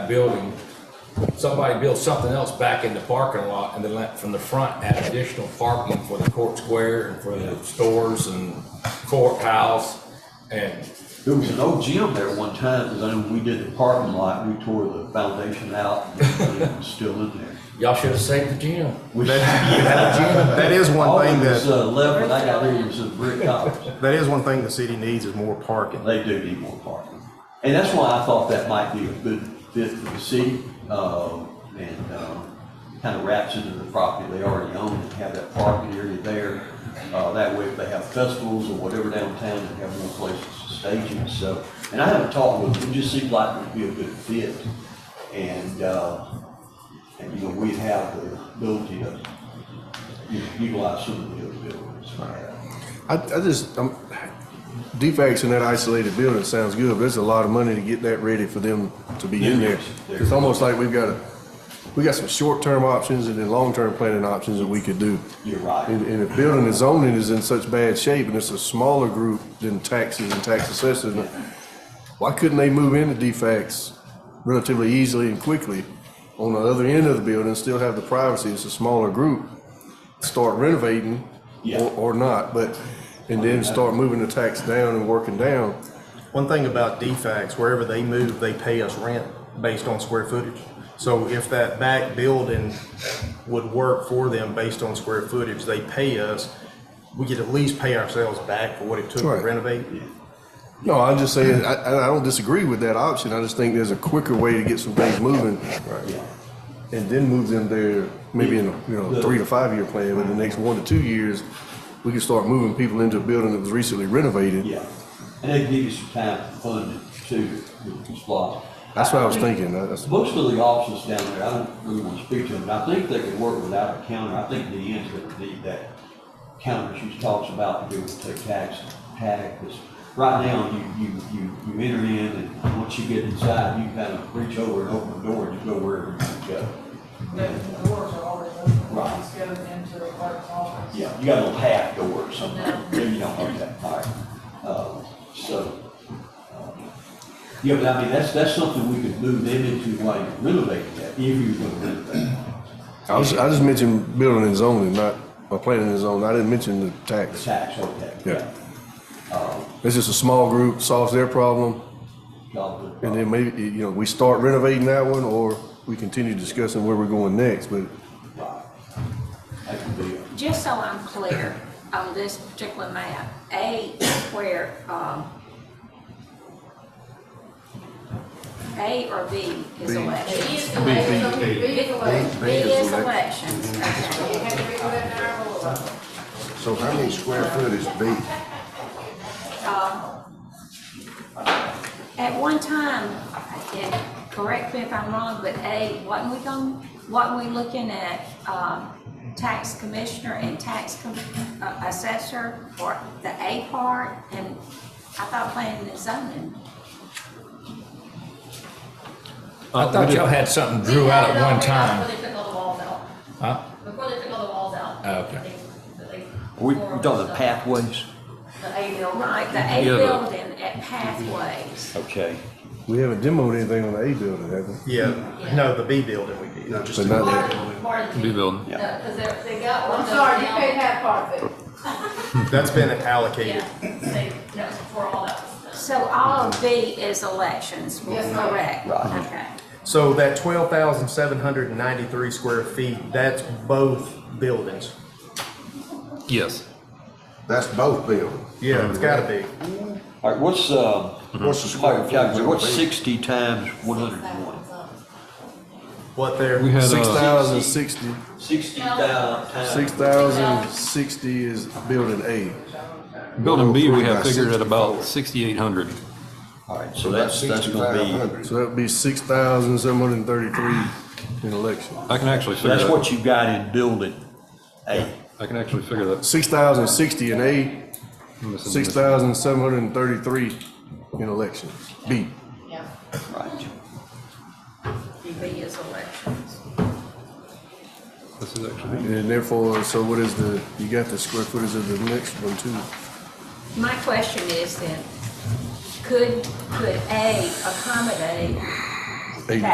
building, somebody built something else back in the parking lot and then let, from the front add additional parking for the court square and for the stores and courthouse and There was an old gym there one time, because I know we did the parking lot, we tore the foundation out, and it was still in there. y'all should have saved the gym. We- That is All one that thing was that, uh, left when I got there was a brick house. that is one thing the city needs is more parking. They do need more parking. And that's why I thought that might be a good fit for the city, uh, and, um, kind of wraps into the property they already own and have that parking area there. Uh, that way if they have festivals or whatever downtown, they have more places to stage it, so. And I haven't talked with them, it just seemed like it would be a good fit. And, uh, and, you know, we'd have the ability to you know, utilize some of the other buildings for that. I, I just, um, defects in that isolated building sounds good, but there's a lot of money to get that ready for them to be in there. It's almost like we've got a, we got some short-term options and then long-term planning options that we could do. You're right. And, and if building and zoning is in such bad shape and it's a smaller group than taxes and tax assessors, why couldn't they move into defects relatively easily and quickly on the other end of the building, still have the privacy, it's a smaller group, start renovating Yeah. or, or not, but, and then start moving the tax down and working down. One thing about defects, wherever they move, they pay us rent based on square footage. So if that back building would work for them based on square footage, they pay us, we could at least pay ourselves back for what it took to Right. renovate. No, I'm just saying, I, I I don't disagree with that option, I just think there's a quicker way to get some things moving. Yeah. and then move them there maybe in, you know, three to five year plan, but the next one to two years, we can start moving people into a building that was recently renovated. Yeah, and they give you some time to fund it too, with the splosh. That's what I was thinking, that- that's, Most of the offices down there, I don't really want to speak to them, but I think they could work without a counter. I think the ends that need that counter she talks about, to be able to take tax, tag, because right now, you, you, you, you enter in, and once you get inside, you kind of reach over and open the door, and you go wherever you can go. The doors are always open, Right. just go into the clerk's office. Yeah, you got a little half door or something, maybe you don't have that, all right. Uh, So, um, yeah, but I mean, that's, that's something we could move them into, like renovating that, if you were gonna renovate. I was, I just mentioned building and zoning, not, or planning and zoning, I didn't mention the the tax. tax, okay. Yeah. It's just a small group, solves their problem, Y'all do. and then maybe, you know, we start renovating that one, or we continue discussing where we're going next, but Right. That could be, it. Just so I'm clear on this particular map, A is where, um, A or B is It election. is the way, it's gonna be the way. B is elections, You okay. have to be within an hour of it. So how many square foot is B? At one time, and correct me if I'm wrong, but A, wasn't we going, wasn't we looking at, um, tax commissioner and tax com- uh, assessor for the A part? And I thought planning and zoning I thought y'all had something drew out at one time. uh, Before they took all the walls out. Huh? Before they took all the walls out. Oh, okay. They- they- we, we talking the pathways? The A building. Right, the A Yeah, the- building at Pathways. Okay. we haven't demoed anything on the A building, have we? Yeah, no, the B building we did, not just But the not that. Part of the. New building. Yeah. Because they're, they got one I'm of those sorry, you down. can't have part of it. That's been allocated. Yeah, they, that was before all that was done. So all of B is elections, Yes, ma'am. correct? Right. Okay. So that twelve thousand seven hundred and ninety-three square feet, that's both buildings. Yes. That's both buildings. Yeah, it's gotta be. All right, what's, uh, What's the all square right, footage calculate, on what's B? sixty times one hundred and one? What there? We had Six uh, thousand sixty. Sixty thou- times. Six thousand sixty is building A. building B. 103 We had by figured at about 64. sixty-eight hundred. All right, so that's, that's gonna be. 6,500. So that would be six thousand seven hundred and thirty-three in election. I can actually So figure that's that. what you got in building A. I can actually figure that. Six thousand sixty in A, I'm missing six this. thousand seven hundred and thirty-three in election, B. Yeah. Right. B is elections. This is actually. And therefore, so what is the, you got the square footage of the next one too? My question is then, could, could A accommodate A